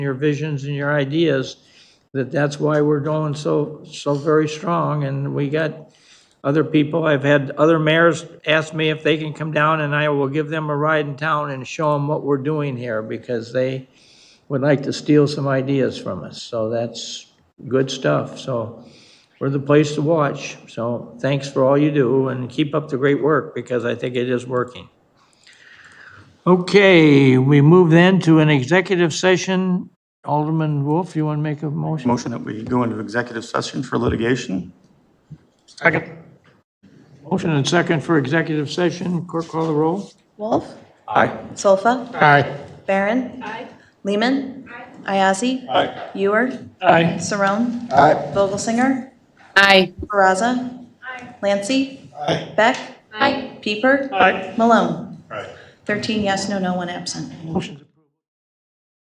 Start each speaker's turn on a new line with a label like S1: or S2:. S1: your visions and your ideas, that that's why we're going so, so very strong. And we got other people, I've had other mayors ask me if they can come down and I will give them a ride in town and show them what we're doing here because they would like to steal some ideas from us. So that's good stuff. So we're the place to watch. So thanks for all you do and keep up the great work because I think it is working. Okay, we move then to an executive session. Alderman Wolf, you want to make a motion?
S2: Motion that we go into executive session for litigation?
S1: Motion and second for executive session. Clerk call the roll.
S3: Wolf?
S2: Aye.
S3: Solfa?
S1: Aye.
S3: Barron? Lehman? Ayazi? Ewer?
S1: Aye.
S3: Saron? Vogelsinger?
S4: Aye.
S3: Baraza? Lancy? Beck? Peeper? Malone? 13 yes, no, no one absent.
S1: Motion